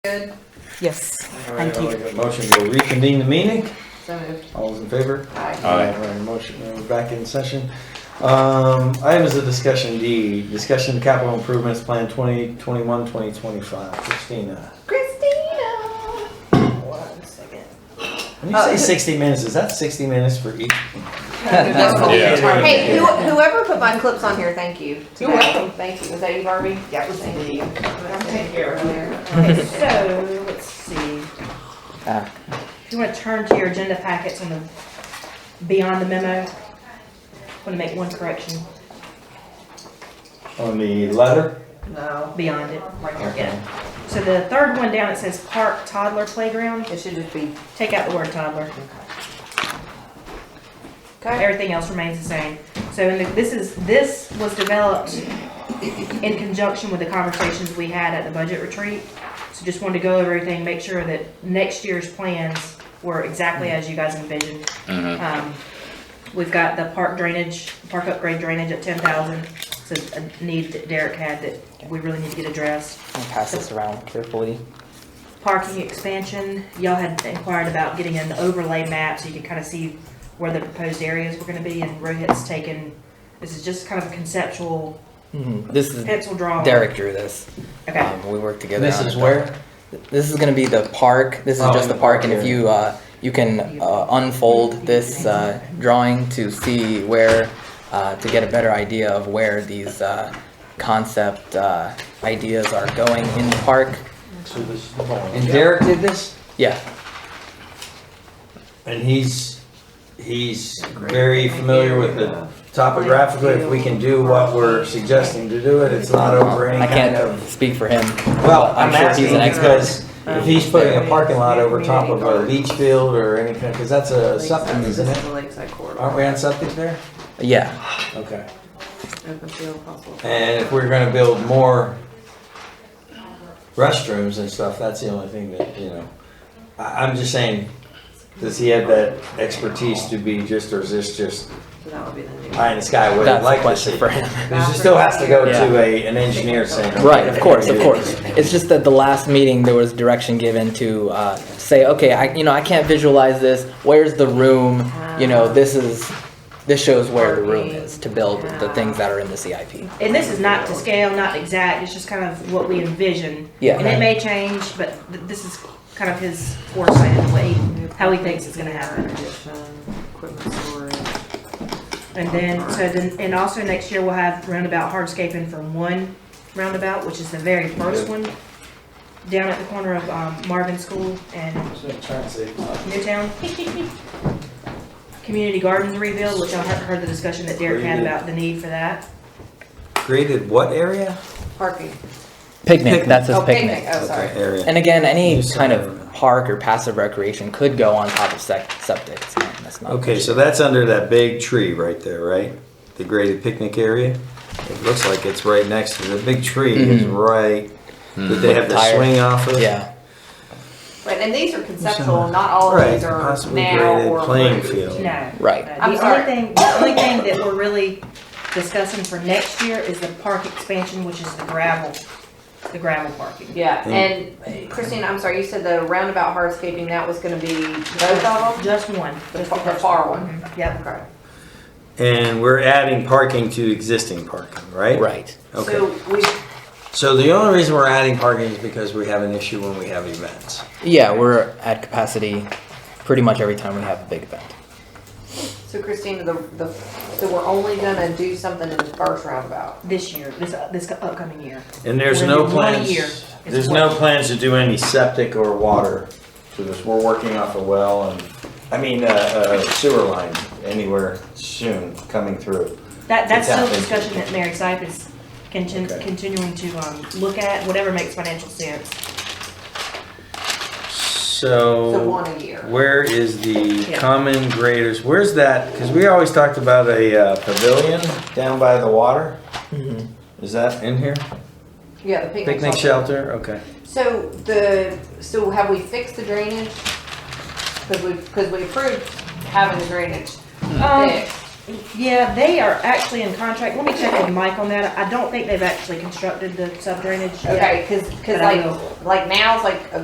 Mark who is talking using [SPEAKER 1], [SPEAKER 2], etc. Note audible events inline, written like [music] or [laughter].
[SPEAKER 1] Good,
[SPEAKER 2] Yes,
[SPEAKER 3] All right,
[SPEAKER 2] thank
[SPEAKER 3] I'll
[SPEAKER 2] you.
[SPEAKER 3] make a Motion to reconvene the meeting.
[SPEAKER 1] so moved.
[SPEAKER 3] All those in favor?
[SPEAKER 1] Aye.
[SPEAKER 4] Aye.
[SPEAKER 3] All right, Motion, we're back in session. Um, items of discussion D, discussion of capital improvements plan 2021, 2025. Christina.
[SPEAKER 1] Christina!
[SPEAKER 3] [laughs]
[SPEAKER 1] One second.
[SPEAKER 3] When
[SPEAKER 2] Uh,
[SPEAKER 3] you say 60 minutes, is that 60 minutes for each?
[SPEAKER 4] Yeah.
[SPEAKER 1] Hey, who- whoever put my clips on here, thank you.
[SPEAKER 5] You're welcome.
[SPEAKER 1] Thank you. Was that you, Barbie?
[SPEAKER 5] That was
[SPEAKER 1] Thank
[SPEAKER 5] me.
[SPEAKER 1] you.
[SPEAKER 5] I'll take care of it.
[SPEAKER 1] Okay, So, let's see.
[SPEAKER 2] Ah.
[SPEAKER 1] Do you want to turn to your agenda packets on the, beyond the memo? Want to make one correction
[SPEAKER 3] On the letter?
[SPEAKER 5] No,
[SPEAKER 1] beyond it, right there,
[SPEAKER 3] Okay.
[SPEAKER 1] yeah. So the third one down, it says park toddler playground.
[SPEAKER 5] it should just be,
[SPEAKER 1] Take out the word toddler.
[SPEAKER 5] okay,
[SPEAKER 1] Everything else remains the same. So in the, this is, this was developed in conjunction with the conversations we had at the budget retreat. So just wanted to go over everything, make sure that next year's plans were exactly as you guys envisioned. Um, We've got the park drainage, park upgrade drainage at ten thousand. So a need that Derek had that we really need to get addressed.
[SPEAKER 2] I'll pass this around carefully.
[SPEAKER 1] Parking expansion, y'all had inquired about getting an overlay map so you could kind of see where the proposed areas were gonna be and Rohit's taken, this is just kind of a conceptual
[SPEAKER 3] Mm-hmm.
[SPEAKER 2] This is,
[SPEAKER 1] pencil drawing.
[SPEAKER 2] Derek drew this.
[SPEAKER 1] Okay,
[SPEAKER 2] Um, we worked together.
[SPEAKER 3] This
[SPEAKER 2] on
[SPEAKER 3] is
[SPEAKER 2] it.
[SPEAKER 3] where?
[SPEAKER 2] This is gonna be the park. This is
[SPEAKER 3] Oh,
[SPEAKER 2] just the park and if
[SPEAKER 3] yeah.
[SPEAKER 2] you, uh, you can, uh, unfold this, uh, drawing to see where, uh, to get a better idea of where these, uh, concept, uh, ideas are going in the park.
[SPEAKER 3] And Derek did this?
[SPEAKER 2] Yeah,
[SPEAKER 3] And he's, he's very familiar with the topographically, if we can do what we're suggesting to do it, it's not over any
[SPEAKER 2] Um, I
[SPEAKER 3] kind of.
[SPEAKER 2] can't speak for him.
[SPEAKER 3] Well,
[SPEAKER 2] but
[SPEAKER 3] I'm
[SPEAKER 2] sure
[SPEAKER 3] asking
[SPEAKER 2] he's an expert.
[SPEAKER 3] because if he's putting a parking lot over top of a leach field or anything, because that's a
[SPEAKER 5] Lakeside,
[SPEAKER 3] septic,
[SPEAKER 5] this
[SPEAKER 3] isn't
[SPEAKER 5] is
[SPEAKER 3] it?
[SPEAKER 5] the Lakeside Corridor,
[SPEAKER 3] Aren't we on septic there?
[SPEAKER 2] Yeah,
[SPEAKER 3] Okay.
[SPEAKER 5] open field, possible.
[SPEAKER 3] And if we're gonna build more restrooms and stuff, that's the only thing that, you know. I, I'm just saying, does he have that expertise to be just, or is this just
[SPEAKER 5] So that would be the new.
[SPEAKER 3] pie in the sky what
[SPEAKER 2] that's
[SPEAKER 3] I'd
[SPEAKER 2] a
[SPEAKER 3] like to
[SPEAKER 2] question
[SPEAKER 3] see?
[SPEAKER 2] for him.
[SPEAKER 3] Because it still has to go to a, an engineer saying. okay,
[SPEAKER 2] Right, of course, of
[SPEAKER 3] do
[SPEAKER 2] course. It's just that the last meeting, there was direction given to uh, say, okay, I, you know, I can't visualize this. Where's the room? You know, this is, this shows where the room is to build the things that are in the CIP.
[SPEAKER 1] and this is not to scale, not exact, it's just kind of what we envision.
[SPEAKER 2] Yeah.
[SPEAKER 1] And it may change, but th- this is kind of his foresight and way, how he thinks it's gonna happen.
[SPEAKER 5] Addition, Equipment storage.
[SPEAKER 1] And then, so then, and also next year we'll have roundabout hardscaping for one roundabout, which is the very first one, down at the corner of um, Marvin School and Newtown. [laughs] Community gardens rebuild, which I have heard the discussion that Derek had about the need for that.
[SPEAKER 3] Created what area?
[SPEAKER 5] Parking.
[SPEAKER 2] Picnic, that's his
[SPEAKER 5] Oh, picnic,
[SPEAKER 2] picnic.
[SPEAKER 5] oh, sorry.
[SPEAKER 3] Area.
[SPEAKER 2] And again, any
[SPEAKER 3] Use
[SPEAKER 2] kind
[SPEAKER 3] center.
[SPEAKER 2] of park or passive recreation could go on top of sec- septic. It's not- That's not.
[SPEAKER 3] Okay, so that's under that big tree right there, right? The graded picnic area? It looks like it's right next to the big tree is right, that they have the
[SPEAKER 2] Mm-hmm. Tire.
[SPEAKER 3] swing off of.
[SPEAKER 2] Yeah,
[SPEAKER 5] Right, and these are conceptual, not all of these
[SPEAKER 3] Right,
[SPEAKER 5] are
[SPEAKER 3] possibly
[SPEAKER 5] now
[SPEAKER 3] graded
[SPEAKER 5] or
[SPEAKER 3] playing
[SPEAKER 5] approved.
[SPEAKER 3] field.
[SPEAKER 1] No.
[SPEAKER 2] right.
[SPEAKER 1] The
[SPEAKER 5] I'm
[SPEAKER 1] only
[SPEAKER 5] sorry.
[SPEAKER 1] thing, the only thing that we're really discussing for next year is the park expansion, which is the gravel, the gravel parking.
[SPEAKER 5] Yeah,
[SPEAKER 3] Mm.
[SPEAKER 5] and Christine, I'm sorry, you said the roundabout hardscaping, that was gonna be both of them?
[SPEAKER 1] Just one.
[SPEAKER 5] The
[SPEAKER 1] just
[SPEAKER 5] far- the
[SPEAKER 1] first
[SPEAKER 5] far one?
[SPEAKER 1] Mhm, Yep.
[SPEAKER 5] Okay.
[SPEAKER 3] And we're adding parking to existing parking, right?
[SPEAKER 2] Right.
[SPEAKER 5] So
[SPEAKER 3] Okay,
[SPEAKER 5] we,
[SPEAKER 3] so the only reason we're adding parking is because we have an issue when we have events.
[SPEAKER 2] Yeah, we're at capacity pretty much every time we have a big event.
[SPEAKER 5] so Christina, the, the, so we're only gonna do something in the first roundabout?
[SPEAKER 1] This year, this, uh, this upcoming year.
[SPEAKER 3] And there's
[SPEAKER 1] We're
[SPEAKER 3] no
[SPEAKER 1] gonna do one a
[SPEAKER 3] plans,
[SPEAKER 1] year. It's
[SPEAKER 3] there's no
[SPEAKER 1] one.
[SPEAKER 3] plans to do any septic or water to this. We're working off a well and, I mean, uh, uh, sewer line anywhere soon coming through.
[SPEAKER 1] That,
[SPEAKER 3] It's
[SPEAKER 1] that's still a
[SPEAKER 3] happening.
[SPEAKER 1] discussion that Mary Sipe is contin-
[SPEAKER 3] Okay.
[SPEAKER 1] continuing to, um, look at, whatever makes financial sense.
[SPEAKER 5] So
[SPEAKER 3] So,
[SPEAKER 5] one a year?
[SPEAKER 3] where is the
[SPEAKER 1] Yeah.
[SPEAKER 3] common graders? Where's that? Because we always talked about a uh, pavilion down by the water. Is that in here?
[SPEAKER 5] Yeah, the picnic.
[SPEAKER 3] Picnic shelter, okay.
[SPEAKER 5] So the, so have we fixed the drainage? Cause we, cause we approved having the drainage
[SPEAKER 1] Um,
[SPEAKER 5] fixed.
[SPEAKER 1] Yeah, they are actually in contract. Let me check with Mike on that. I don't think they've actually constructed the sub drainage yet.
[SPEAKER 5] Okay, cause, cause
[SPEAKER 1] But I will.
[SPEAKER 5] like, like now's like a